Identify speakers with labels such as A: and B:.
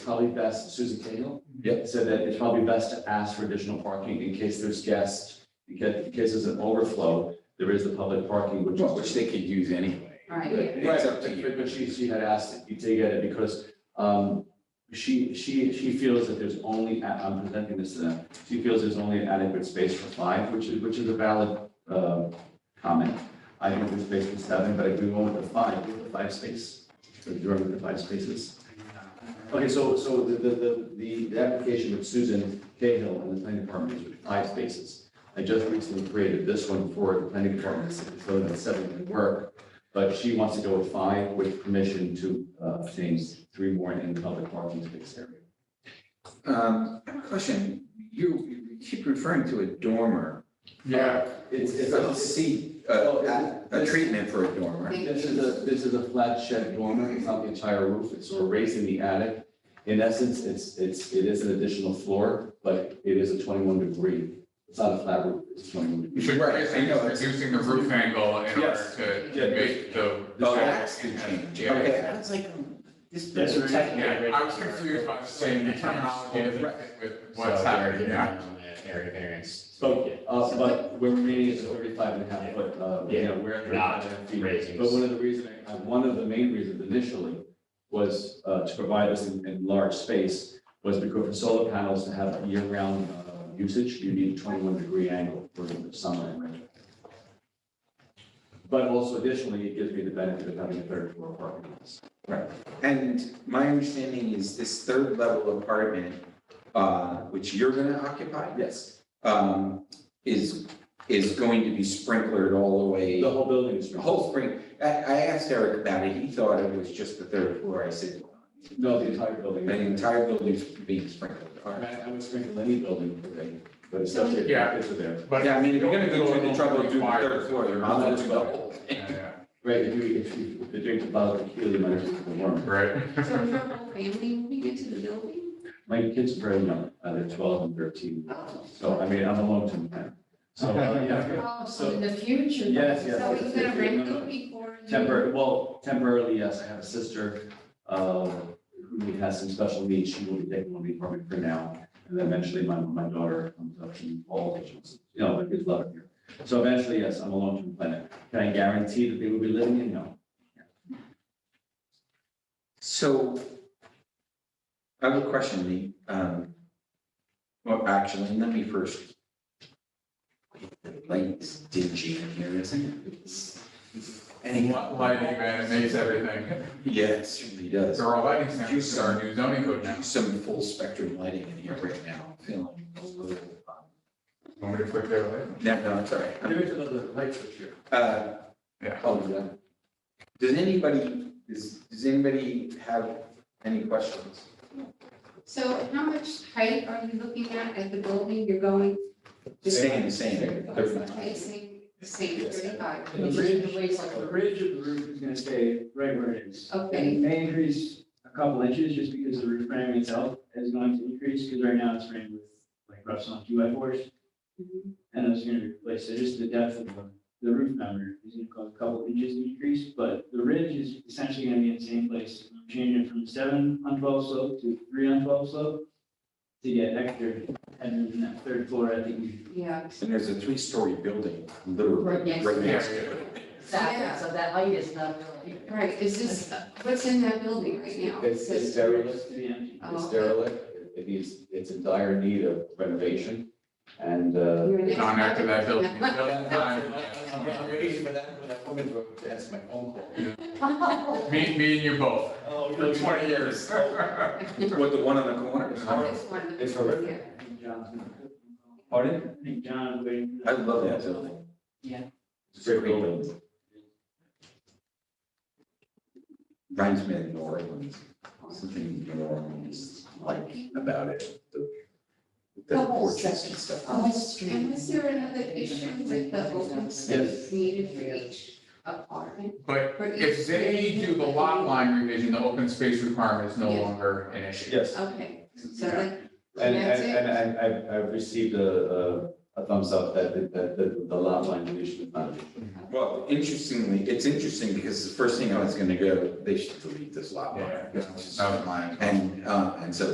A: probably best, Susan Cahill.
B: Yep.
A: Said that it's probably best to ask for additional parking in case there's guests, in ca- in case there's an overflow, there is the public parking, which is.
B: Which they could use anyway.
C: Right.
B: but
A: Right,
B: It's up to you.
A: but but she, she had asked that you take it because, um, she, she, she feels that there's only, I- I'm presenting this to them. She feels there's only an adequate space for five, which is, which is a valid, uh, comment. I think there's space for seven, but I do want the five, with the five space, or during the five spaces. Okay, so, so the, the, the, the- the application with Susan Cahill and the planning department is with five spaces. I just recently created this one for the planning department, so that seven can work. But she wants to go with five with permission to uh, obtain three more in the public parking space area.
B: Um, I have a question. You, you keep referring to a dormer.
A: Yeah. It's,
B: I
A: it's,
B: don't
A: a-
B: see
A: Well,
B: a, a treatment for a dormer.
A: this is a, this is a flat shed dormer, it's not the entire roof, it's sort of raised in the attic. In essence, it's, it's, it is an additional floor, but it is a twenty-one degree. It's not a flat roof, it's twenty-one degree.
D: You should
B: Right, I
D: basically
B: know, it's-
D: just reducing the roof angle in order
A: Yes.
D: to
A: Yeah.
D: to make the.
B: Oh, that's the change.
D: Yeah.
B: Okay, I was like, um, this.
E: That's right.
D: Yeah, I was confused by the same terminology
B: Right.
D: with what's happening, yeah.
E: Area variance.
A: So, uh,
E: So-
A: but we're remaining at the thirty-five and a half foot, uh, you know, we're at
E: We're not
A: 35 feet.
E: raising
A: But one of the reason, uh, one of the main reasons initially was, uh, to provide us in, in large space was because for solar panels to have year-round, uh, usage, you need a twenty-one degree angle for the summer and winter. But also additionally, it gives me the benefit of having a third floor parking.
B: And my understanding is this third level apartment, uh, which you're gonna occupy,
A: Yes,
B: um, is, is going to be sprinklered all the way.
A: the whole building is.
B: The whole spring, I, I asked Eric about it, he thought it was just the third floor, I said,
A: No, the entire building.
B: the entire building's being sprinkled. All right.
A: I would sprinkle any building today, but especially if
D: Yeah.
A: kids are there.
D: But
B: Yeah, I mean, if you're gonna
D: the
B: go to the
D: building
B: trouble of doing the
D: requires-
B: third floor, you're not gonna do the whole
D: Yeah,
B: thing.
D: yeah,
A: Right, if you, if you, if you drink the bottle of tequila, you might as well be warm.
D: Right.
C: So her whole family moving into the building?
A: My kids are very young, uh, they're twelve and thirteen,
C: Oh,
A: so I mean, I'm a long-term parent. So, uh, yeah,
C: Oh, so in the future.
A: Yes, yes,
C: So
A: yes,
C: he's
A: yes,
C: gonna rent
A: no, no.
C: it before. you-
A: temporary, well, temporarily, yes, I have a sister, uh, who has some special needs, she will be taking on the apartment for now. And then eventually my, my daughter comes up and all, you know, my kids love it here. So eventually, yes, I'm a long-term planner. Can I guarantee that they will be living in? No.
B: So I have a question, Lee. Um, well, actually, let me first. The light is dingy in here, isn't it? Any,
D: Li- Lighting, man, it makes everything.
B: yeah, it certainly does.
D: There are lighting standards in our new zoning code now.
B: Some full spectrum lighting in here right now, I'm feeling a little. um,
D: Want me to click there later?
B: No, no, it's all right.
A: it another light switch here.
B: Uh,
D: Yeah.
B: I'll do that. Does anybody, does, does anybody have any questions?
C: So how much height are you looking at at the building you're going?
B: Same, same.
C: Facing the same
A: Yes.
C: thirty-five.
E: And
C: which
E: the
C: is
E: ridge-
C: the waist
E: The
C: level.
E: ridge of the roof is gonna stay right where it is.
C: Okay.
E: It may increase a couple inches just because the roof framing itself is going to increase, because right now it's framed with like rough on two by fours,
C: Mhm.
E: and it's gonna replace, so just the depth of the, the roof number is gonna cause a couple inches to decrease, but the ridge is essentially gonna be in the same place. I'm Changing it from seven on twelve slope to three on twelve slope to get extra headroom in that third floor, I think.
C: Yeah.
B: And there's a three-story building, literally, right
F: Right next to
B: next to
D: Yeah, yeah.
B: it.
C: Yeah.
F: Exactly, so that light is not really.
C: Right, is this, what's in that building right now?
A: It's, it's
C: This-
A: derelict.
E: To be empty.
C: Oh,
A: It's
C: okay.
A: derelict, It- it is, it's in dire need of renovation, and, uh.
C: Your next-
D: Gone after that building. Built in time, yeah.
A: waiting for that, for that woman to answer my phone call.
D: Me, me and you both,
A: Oh,
D: for twenty years.
B: What, the one on the corner?
D: It's
C: Oh, this one.
A: It's horrific.
C: Yeah.
E: I think John's gonna-
A: Pardon?
E: I think John is waiting. for
B: I
E: that.
B: love that building.
A: It's a great building.
B: Reminds me of New Orleans, something New Orleans like about it. the- The
F: The whole
B: porches and stuff.
F: Oh, it's true.
C: And was there another issue with the open space needed for each apartment?
D: But if they do the lot line revision, the open space requirement is no longer an issue.
A: Yes.
C: Okay, so that,
A: And,
C: That's
A: and, and I, I've, I've received a, a a thumbs up that, that, that that the lot line deletion is not. an issue.
B: Well, interestingly, it's interesting because the first thing I was gonna go, they should delete this lot line.
D: Yeah, that was mine.
B: And, uh, and so